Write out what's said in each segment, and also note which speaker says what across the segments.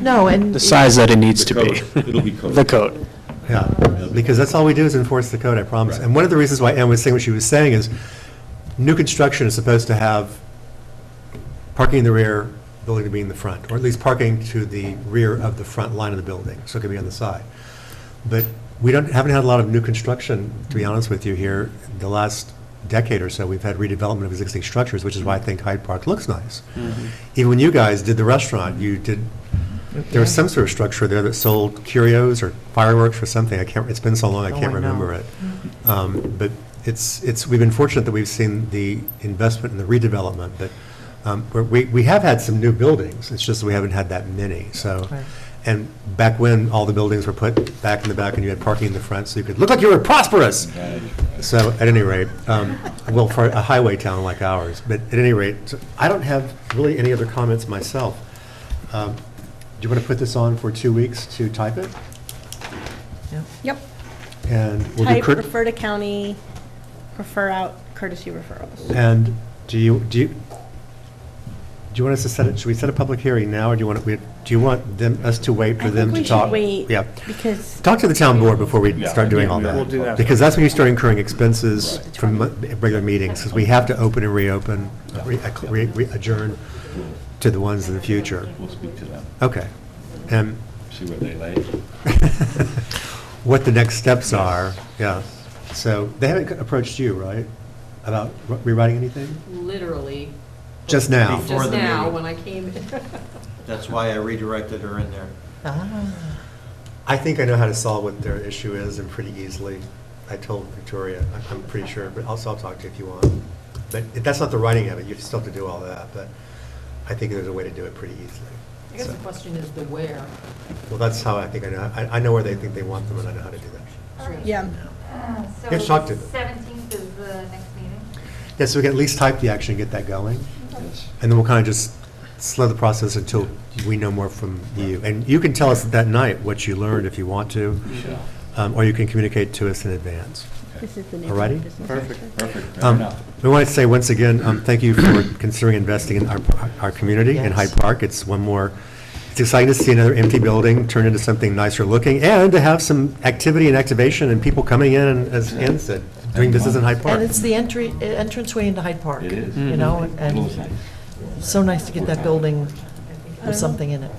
Speaker 1: No, and.
Speaker 2: the size that it needs to
Speaker 3: The
Speaker 2: be.
Speaker 3: code. It'll be code.
Speaker 2: The code.
Speaker 4: Yeah, because that's all we do is enforce the code, I promise.
Speaker 3: Right.
Speaker 4: And one of the reasons why Ann was saying what she was saying is, new construction is supposed to have parking in the rear, building to be in the front, or at least parking to the rear of the front line of the building, so it could be on the side. But we don't, haven't had a lot of new construction, to be honest with you, here, the last decade or so, we've had redevelopment of existing structures, which is why I think Hyde Park looks nice.
Speaker 1: Mm-hmm.
Speaker 4: Even when you guys did the restaurant, you did there was some sort of structure there that sold curios or fireworks or something. I can't, it's been so long,
Speaker 1: Oh,
Speaker 4: I can't
Speaker 1: I know.
Speaker 4: remember it. Um, But it's, it's, we've been fortunate that we've seen the investment and the redevelopment, but um, we're- we, we have had some new buildings. It's just we haven't had that many, so.
Speaker 1: Right.
Speaker 4: And back when, all the buildings were put back in the back and you had parking in the front, so you could look like you were prosperous. So at any rate, um, well, for a highway town like ours, but at any rate, so I don't have really any other comments myself. Um, Do you want to put this on for two weeks to type it?
Speaker 5: Yep.
Speaker 4: And we'll do
Speaker 5: Type
Speaker 4: Curt-
Speaker 5: refer to county, refer out courtesy referrals.
Speaker 4: And do you, do you, do you want us to set it, should we set a public hearing now, or do you want, we- do you want them, us to wait for
Speaker 5: I
Speaker 4: them
Speaker 5: think
Speaker 4: to
Speaker 5: we should
Speaker 4: talk?
Speaker 5: wait,
Speaker 4: Yeah.
Speaker 5: because
Speaker 4: Talk to the town board before we
Speaker 3: Yeah,
Speaker 4: start doing
Speaker 3: yeah,
Speaker 4: all that.
Speaker 3: we'll do that.
Speaker 4: Because that's when you start incurring expenses from mo- regular meetings, because we have to open and reopen, re- re- re- adjourn to the ones in the future.
Speaker 3: We'll speak to them,
Speaker 4: Okay. And
Speaker 3: see where they lay.
Speaker 4: what the next steps are, yeah. So they haven't approached you, right, about re- rewriting anything?
Speaker 6: literally
Speaker 4: Just now?
Speaker 7: Before
Speaker 6: just
Speaker 7: the
Speaker 6: now
Speaker 7: meeting.
Speaker 6: when I came in.
Speaker 7: That's why I redirected her in there.
Speaker 1: Ah.
Speaker 4: I think I know how to solve what their issue is and pretty easily. I told Victoria, I- I'm pretty sure, but also I'll talk to you if you want. But if that's not the writing of it, you still have to do all that, but I think there's a way to do it pretty
Speaker 6: I
Speaker 4: easily.
Speaker 6: guess
Speaker 4: So-
Speaker 6: the question is the where.
Speaker 4: Well, that's how I think I know, I, I know where they think they want them and I know how to do that.
Speaker 5: Yeah.
Speaker 8: Uh, So
Speaker 4: Yes, talk to them.
Speaker 8: Seventeenth is the next meeting?
Speaker 4: Yeah, so we can at least type the action, get that going, and then we'll kind of just slow the process until we know more from you. And you can tell us that night what you learned if you want to, um, or you can communicate to us in advance.
Speaker 5: this is the
Speaker 4: All righty.
Speaker 5: neighborhood business.
Speaker 3: Perfect, perfect, fair
Speaker 4: Um,
Speaker 3: enough.
Speaker 4: We want to say once again, um, thank you for considering investing in our, our community in Hyde Park. It's one more, it's exciting to see another empty building turn into something nicer looking and to have some activity and activation and people coming in, and as Ann said, doing business in Hyde Park.
Speaker 1: And it's the entry, entranceway into Hyde Park.
Speaker 3: It is.
Speaker 1: You know,
Speaker 3: It looks
Speaker 1: and
Speaker 3: nice.
Speaker 1: so nice to get that building with something in it.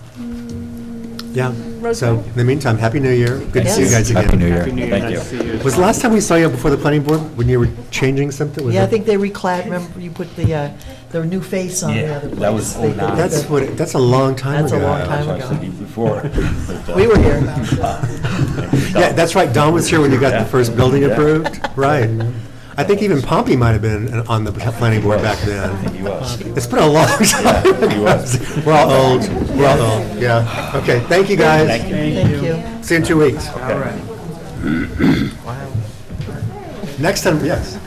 Speaker 4: Yeah. So in the meantime, Happy New Year. Good to see you
Speaker 1: Yes.
Speaker 4: guys again.
Speaker 9: Happy New Year.
Speaker 4: Was the last time we saw you before the planning board when you were changing something? Was
Speaker 1: Yeah, I
Speaker 4: it-
Speaker 1: think they reclad, remember, you put the, uh, the new face on the
Speaker 9: Yeah,
Speaker 1: other place.
Speaker 9: that was
Speaker 1: They did
Speaker 9: 09.
Speaker 4: That's
Speaker 1: the-
Speaker 4: what, that's a long time ago.
Speaker 1: That's a long
Speaker 3: That's what I was
Speaker 1: ago.
Speaker 3: thinking before. uh,
Speaker 1: We were here.
Speaker 4: Yeah, that's right, Don was here when you got the first building
Speaker 3: Yeah.
Speaker 4: approved, right. I think even Pompey might have been on the planning board back then. It's been a long
Speaker 3: he was.
Speaker 4: time. We're all old, we're all old, yeah. Okay, thank you, guys.
Speaker 1: Thank you.
Speaker 4: See you in two weeks. Next time, yes.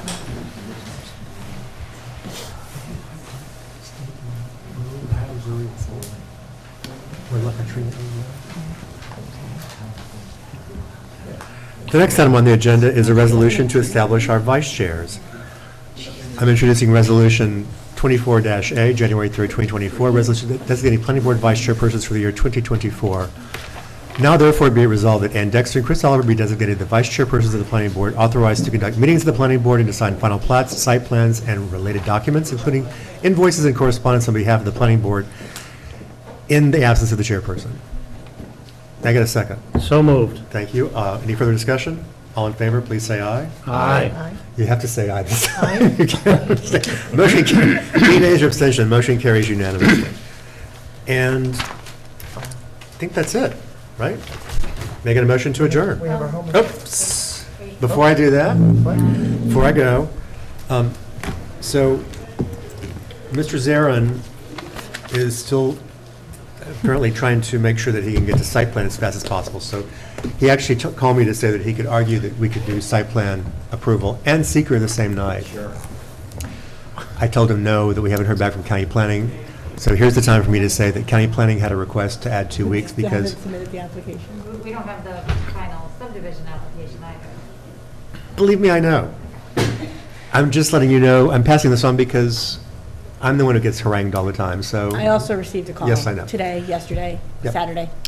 Speaker 4: The next item on the agenda is a resolution to establish our vice chairs. I'm introducing Resolution 24-A, January 3rd, 2024, resolution designating planning board vice chairpersons for the year 2024. Now therefore be it resolved that Ann Dexter and Chris Oliver be designated the vice chairpersons of the planning board, authorized to conduct meetings of the planning board and to sign final plats, site plans, and related documents, including invoices and correspondence on behalf of the planning board in the absence of the chairperson. Can I get a second?
Speaker 10: So moved.
Speaker 4: Thank you. Uh, Any further discussion? All in favor, please say aye.
Speaker 10: Aye.
Speaker 1: Aye.
Speaker 4: You have to say aye this time. You can't say- Motion, ca- three nays or abstention, motion carries unanimously. And I think that's it, right? Making a motion to adjourn.
Speaker 1: We have our homework.
Speaker 4: Oops. Before I do that, before I go, um, so Mr. Zarin is still apparently trying to make sure that he can get to site plan as fast as possible. So he actually took- called me to say that he could argue that we could do site plan approval and seeker the same night. I told him no, that we haven't heard back from county planning. So here's the time for me to say that county planning had a request to add two weeks
Speaker 5: Still
Speaker 4: because
Speaker 5: haven't submitted the application.
Speaker 8: We- We don't have the final subdivision application either.
Speaker 4: Believe me, I know. I'm just letting you know, I'm passing this on because I'm the one who gets harangued all the time, so.
Speaker 5: I also received a call
Speaker 4: Yes, I know.
Speaker 5: today, yesterday,
Speaker 4: Yep.
Speaker 5: Saturday.